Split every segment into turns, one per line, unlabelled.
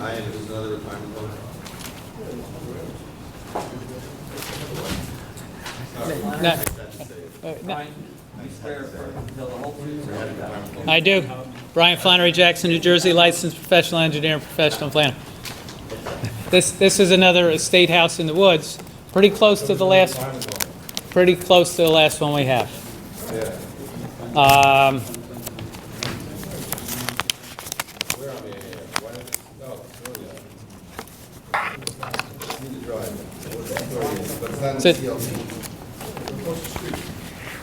I, and it was another retirement plan. Sorry, I
No.
just had to say it.
Uh, no,
Brian, you swear affirm to tell the whole truth, the whole truth,
I do. Brian Flannery Jackson, New Jersey, licensed professional engineer and professional planner. This, this is another estate house in the woods, pretty close to the last, pretty close to the last one we have.
Yeah,
Um,
where am I here? Why did, no, really, uh, Need to drive. But it's not in the
Sit.
CLC.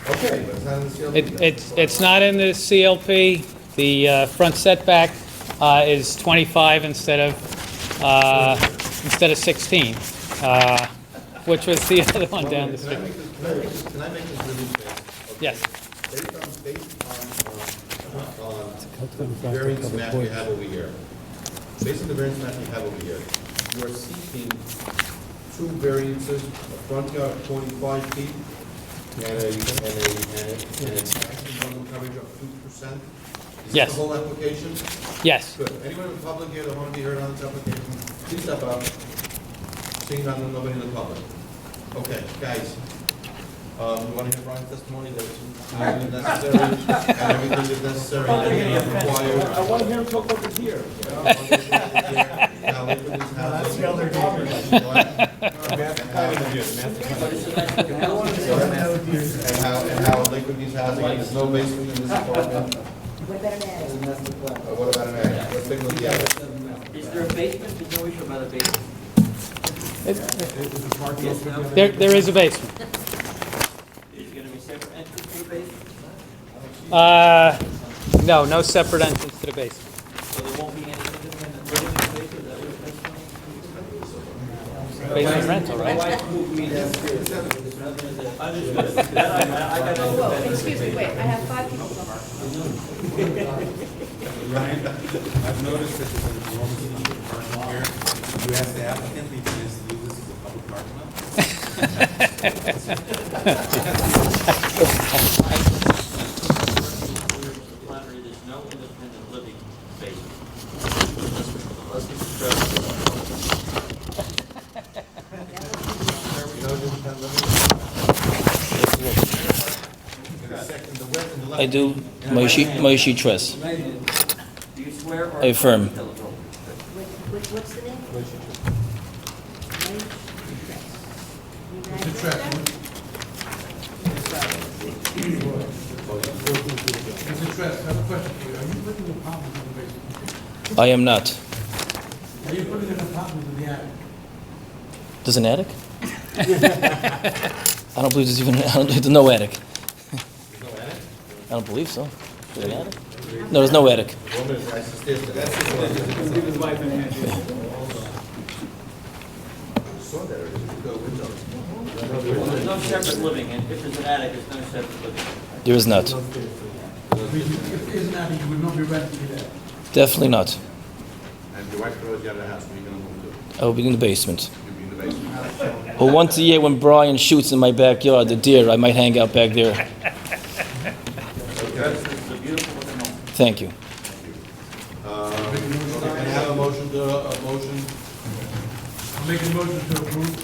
Okay, but it's not in the CLC.
It- It's, it's not in the CLP. The uh, front setback uh, is 25 instead of, uh, instead of 16, uh, which was the other one down the
Can I
street.
make this, can I make this, can I make this really fast? Okay.
Yes.
Based on, based on, uh, on, on the variance map you have over here, based on the variance map you have over here, you are seeking two variances, a front yard of forty-five feet and a, and a, and a, and a maximum bundle coverage of two percent? Is
Yes.
this the whole application?
Yes.
Good. Anyone in the public here that want to be heard on this application, please step up. Seeing none, nobody in the public. Okay, guys, um, you want to hear Brian's testimony that it's highly necessary, and everything is necessary, and everything is required. I want to hear him talk over here. Now, look at this house. That's the other And how, and how Lakewood needs housing, and there's no basement in this apartment.
What about an attic?
the master plan.
Uh, What about an attic? Let's take a look at the attic.
Is there a basement? There's no issue about a basement. Yes, no?
There, there is a basement.
Is there gonna be separate entrance to the basement?
Uh, No, no separate entrance to the basement.
So there won't be any independent living in the basement, is that what you're saying?
Basement rental,
My
right?
wife moved me downstairs. Understood. That I- I- I got
Whoa,
independent.
excuse me, wait, I have five people. left.
Ryan, I've noticed that there's an enormous amount of parking here. You asked the applicant, if he just use this as a public parking lot?
Flattery, there's no independent living basement.
I do, Moshe, Moshe Trust,
Do you swear or?
I affirm.
Tell the truth.
What, what, what's the name? Mr.
Mr. Tress, I have a question for you. Are you putting an apartment in the basement?
I am not.
Are you putting an apartment in the attic?
There's an attic? I don't believe there's even, I don't, there's no attic. I don't believe so. There's an attic? No, there's no attic.
There's no separate living, and if there's an attic, there's no separate living.
There is not.
If it is an attic, you would not be renting it out.
Definitely not.
And your wife knows you have a house, where you gonna move to?
I will be in the basement.
You'll be in the basement.
But once a year when Brian shoots in my backyard, the deer, I might hang out back there.
Okay.
It's a beautiful looking home.
Thank you.
Um, Can I have a motion to, a motion?
I'm making a motion to approve.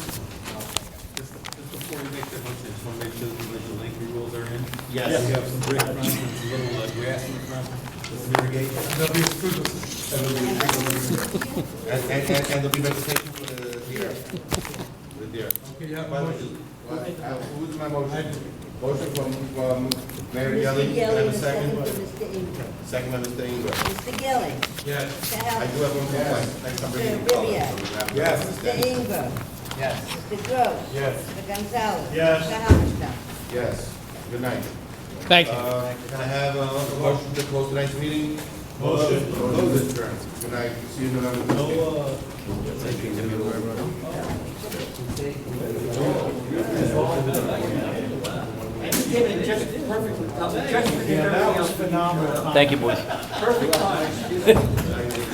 Just just before we make the motion, I just want to make sure that the visual language rules are in.
Yes.
We have some brick front, and some little uh, grass in front, some irrigation.
That'll be approved.
And, and, and there'll be vegetation for the deer. The deer.
Okay, you have
By
a
the way,
motion.
uh, Who's my motion? Motion from, from Mayor Gelli,
Gelling,
can I have a
the second
second?
for Mr. Ingram.
Second by Mr. Ingram.
Mr. Gelling,
Yes.
Mr.
I do
Allen,
have one complaint, next time we're
Mr.
in color. so we have- Yes.
Mr. Ingram. Yes. Mr. Gross.
Yes.
Mr. Gonzalez. Yes. Mr. Halberstam.
Yes, good night.
Thank you.
Uh, Can I have a motion to close tonight's meeting? Motion. Close it, Karen. Good night, see you in November.
Just perfectly, just forget everything else.
Thank you, boys.
Perfect time.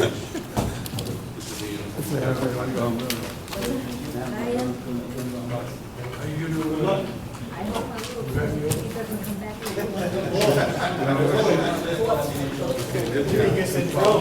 I hope my little brother, he doesn't come back. here.